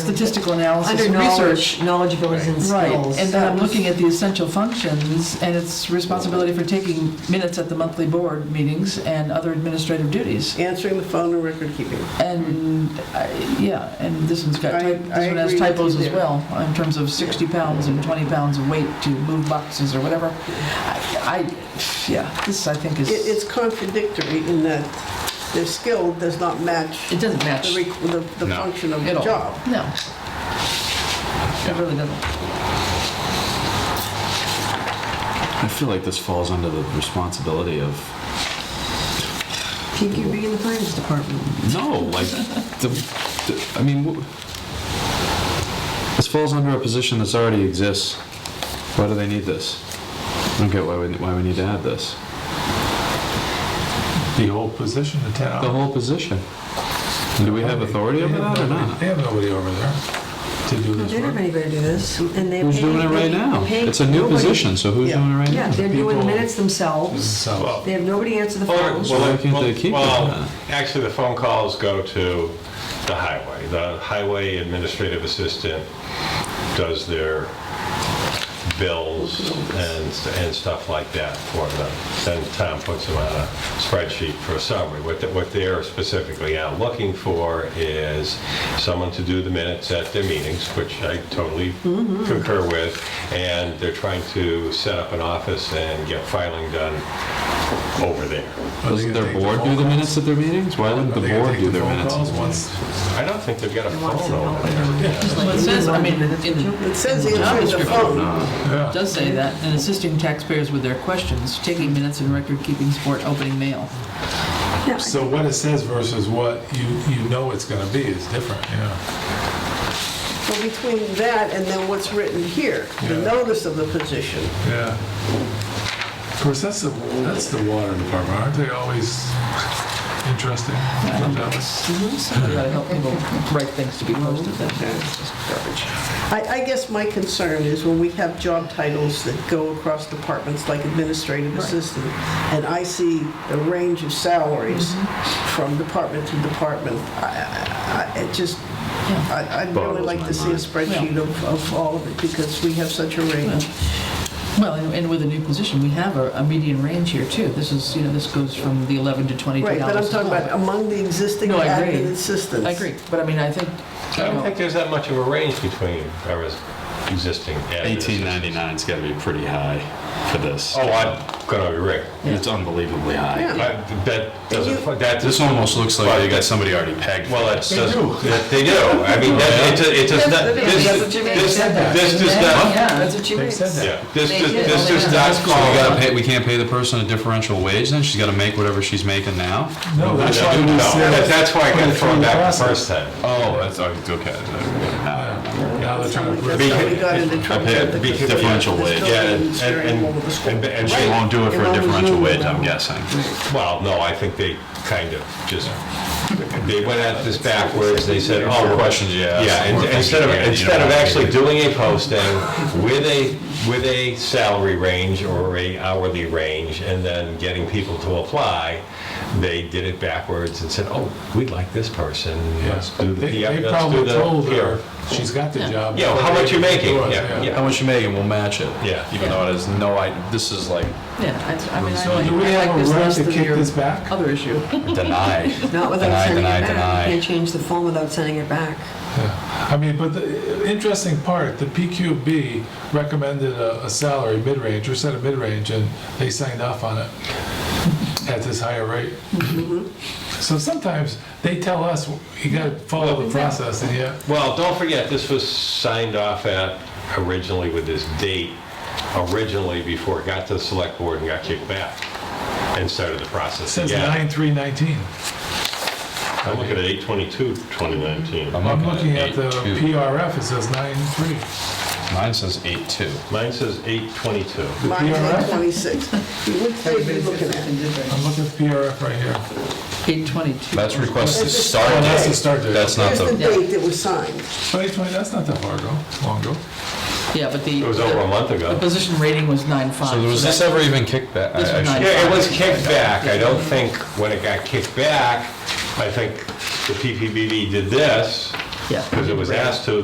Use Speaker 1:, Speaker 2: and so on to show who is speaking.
Speaker 1: statistical analysis
Speaker 2: Under
Speaker 1: and research.
Speaker 2: knowledge, knowledgeability and
Speaker 1: Right,
Speaker 2: skills.
Speaker 1: and then I'm
Speaker 2: That was-
Speaker 1: looking at the essential functions, and it's responsibility for taking minutes at the monthly board meetings and other administrative duties.
Speaker 3: Answering the phone and record keeping.
Speaker 1: And, I- yeah, and this one's got,
Speaker 3: I-
Speaker 1: type-
Speaker 3: I
Speaker 1: this one has
Speaker 3: agree with
Speaker 1: typos
Speaker 3: you
Speaker 1: as
Speaker 3: there.
Speaker 1: well, in terms of 60 pounds and 20 pounds of weight to move boxes or whatever. I, I- yeah, this I think is, it
Speaker 3: It, it's contradictory in that their skill does not match
Speaker 1: doesn't match
Speaker 3: the, requ- the, the
Speaker 4: No.
Speaker 3: function of the
Speaker 1: at all.
Speaker 3: job.
Speaker 1: No. It really doesn't.
Speaker 4: I feel like this falls under the responsibility of,
Speaker 2: PQB in the finance department.
Speaker 4: no, like, the, the- I mean, wh- this falls under a position that's already exists. Why do they need this? I don't get why we, why we need to add this.
Speaker 5: The whole position, the
Speaker 4: The
Speaker 5: 10.
Speaker 4: whole position. And Do we have authority over that or not?
Speaker 5: They have nobody over there to do
Speaker 2: They
Speaker 5: this
Speaker 2: don't have
Speaker 5: work.
Speaker 2: anybody to do this, and they.
Speaker 4: Who's doing it right now? It's a new position, so who's
Speaker 3: Yeah.
Speaker 4: doing it right
Speaker 2: Yeah,
Speaker 4: now?
Speaker 2: they're doing the
Speaker 5: People-
Speaker 2: minutes themselves.
Speaker 5: So,
Speaker 2: They have nobody answer the
Speaker 6: Well,
Speaker 2: phones.
Speaker 4: So why
Speaker 6: well,
Speaker 4: can't they keep it
Speaker 6: well,
Speaker 4: then?
Speaker 6: Actually, the phone calls go to the highway. The highway administrative assistant does their bills and, and stuff like that for them. Then Tom puts them on a spreadsheet for a summary. What, the- what they're specifically out looking for is someone to do the minutes at their meetings, which I totally
Speaker 4: Mm-hmm.
Speaker 6: concur with. And they're trying to set up an office and get filing done over there.
Speaker 5: Are they
Speaker 4: Doesn't
Speaker 5: gonna
Speaker 4: their
Speaker 5: take the
Speaker 4: board
Speaker 5: phone
Speaker 4: do the
Speaker 5: calls?
Speaker 4: minutes at their meetings? Why wouldn't
Speaker 5: Are
Speaker 4: the
Speaker 5: they gonna
Speaker 4: board
Speaker 5: take
Speaker 4: do their
Speaker 5: phone
Speaker 4: minutes?
Speaker 5: calls once?
Speaker 6: I don't think they've got a
Speaker 2: wants
Speaker 6: phone
Speaker 2: to
Speaker 6: over
Speaker 2: help.
Speaker 6: there.
Speaker 1: Well, it says, I mean, in-
Speaker 3: It says
Speaker 1: in the job
Speaker 3: answering the phone.
Speaker 1: description, uh, it does say that, and assisting taxpayers with their questions, taking minutes and record-keeping support, opening mail.
Speaker 2: Yeah,
Speaker 5: So what it says versus what you, you know it's gonna be is different, yeah.
Speaker 3: Well, between that and then what's written here, the
Speaker 5: Yeah.
Speaker 3: notice of the position.
Speaker 5: Yeah. Of course, that's the, that's the water department, aren't they always interesting?
Speaker 1: Somebody ought to help people write things to be posted, that's just garbage.
Speaker 3: I, I guess my concern is when we have job titles that go across departments like administrative assistant, and I see the range of salaries
Speaker 1: Mm-hmm.
Speaker 3: from department to department, I, I- I, it just, I, I'd really
Speaker 4: Boggles
Speaker 3: like
Speaker 4: my
Speaker 3: to see a
Speaker 4: mind.
Speaker 3: spreadsheet of, of all of it, because we have such a range.
Speaker 1: Well, and- and with a new position, we have a a median range here, too. This is, you know, this goes from the 11 to 22
Speaker 3: Right,
Speaker 1: dollars.
Speaker 3: but I'm talking
Speaker 1: an hour.
Speaker 3: about among the existing
Speaker 1: No, I agree.
Speaker 3: admin assistants.
Speaker 1: I agree, but I mean, I think, you
Speaker 6: I don't
Speaker 1: know,
Speaker 6: think there's that much of a range between our existing admin.
Speaker 4: Eighteen ninety-nine's gotta be pretty high for this.
Speaker 6: Oh, I'm gonna agree.
Speaker 4: It's unbelievably high.
Speaker 3: Yeah.
Speaker 6: I- That doesn't, that,
Speaker 4: This almost looks like they got somebody already pegged.
Speaker 6: well, that's,
Speaker 5: They
Speaker 6: just-
Speaker 5: do.
Speaker 6: that- they do. I mean, that, it does- it does not, this,
Speaker 2: That's what you mean.
Speaker 6: this, this does not,
Speaker 2: Yeah, that's what she
Speaker 5: They
Speaker 2: makes.
Speaker 5: said that.
Speaker 6: yeah, this,
Speaker 2: They
Speaker 6: does-
Speaker 2: did.
Speaker 6: this does not
Speaker 4: So we gotta
Speaker 6: call.
Speaker 4: pay, we can't pay the person a differential wage then? She's gotta make whatever she's making now?
Speaker 5: No,
Speaker 6: No,
Speaker 5: that's why we
Speaker 6: that-
Speaker 5: said.
Speaker 6: That's why I got thrown back the first time.
Speaker 4: Oh, that's, okay.
Speaker 5: Now they're trying to.
Speaker 3: That's how we got into trouble with the
Speaker 6: Because- because-
Speaker 4: Differential wage.
Speaker 6: Yeah, and,
Speaker 3: It's very
Speaker 6: and,
Speaker 3: involved with the school.
Speaker 6: and- and
Speaker 4: She
Speaker 6: they-
Speaker 4: won't do it for a
Speaker 3: Right.
Speaker 4: differential wage, I'm guessing.
Speaker 6: Well, no, I think they kind of just, they went at this backwards, they said, oh. we're-
Speaker 4: questions you ask,
Speaker 6: Yeah,
Speaker 4: the
Speaker 6: and-
Speaker 4: more things
Speaker 6: instead
Speaker 4: you
Speaker 6: of,
Speaker 4: get, you
Speaker 6: instead
Speaker 4: know.
Speaker 6: of actually doing a posting with a, with a salary range or a hourly range and then getting people to apply, they did it backwards and said, oh, we like this person, let's do the,
Speaker 5: They
Speaker 6: PR
Speaker 5: they
Speaker 6: let's do
Speaker 5: probably told her
Speaker 6: the PR.
Speaker 5: she's got the job.
Speaker 6: Yeah, how much you making? Yeah, yeah.
Speaker 4: How much you make and we'll match it.
Speaker 6: Yeah.
Speaker 4: Even though it is no, I, this is like
Speaker 1: yeah, I- I mean, I
Speaker 4: So
Speaker 1: like
Speaker 5: Do we
Speaker 1: I like
Speaker 5: have a
Speaker 1: this
Speaker 5: right
Speaker 1: less
Speaker 5: to
Speaker 1: than
Speaker 5: kick
Speaker 1: your
Speaker 5: this back?
Speaker 1: other issue.
Speaker 4: deny.
Speaker 2: Not
Speaker 4: Deny,
Speaker 2: without sending it
Speaker 4: deny,
Speaker 2: back.
Speaker 4: deny.
Speaker 2: You can't change the phone without sending it back.
Speaker 5: I mean, but the interesting part, the PQB recommended a, a salary mid-range, or set a mid-range, and they signed off on it at this higher rate. So sometimes they tell us, you gotta follow the process, and yeah,
Speaker 6: Well, don't forget, this was signed off at originally with this date, originally before it got to the select board and got kicked back and started the
Speaker 5: it
Speaker 6: process
Speaker 5: says
Speaker 6: again.
Speaker 5: nine, three, nineteen.
Speaker 6: I'm looking at 8/22/2019.
Speaker 5: I'm looking at the
Speaker 4: 8.2.
Speaker 5: PRF, it says nine, three.
Speaker 4: Mine says eight two.
Speaker 6: Mine says 8/22.
Speaker 3: Mine's at
Speaker 5: PRF?
Speaker 3: 26. What page are you looking at?
Speaker 5: I'm looking at the PRF right here.
Speaker 1: 822.
Speaker 4: That's requested
Speaker 3: That's the
Speaker 4: start
Speaker 5: Oh, that's the
Speaker 4: date.
Speaker 5: start date.
Speaker 4: That's not
Speaker 3: Here's the
Speaker 4: the,
Speaker 3: date that was signed.
Speaker 5: 2020, that's not that far ago, long ago.
Speaker 1: Yeah, but the.
Speaker 6: It was over a month
Speaker 1: The
Speaker 6: ago.
Speaker 1: position rating was 9.5.
Speaker 4: so was this ever even kicked back?
Speaker 1: This
Speaker 4: I-
Speaker 1: was
Speaker 4: I
Speaker 1: nine.
Speaker 4: should-
Speaker 6: Yeah, it was kicked back. I don't think, when it got kicked back, I think the PPBB did this
Speaker 1: Yeah.
Speaker 6: Because it was asked to,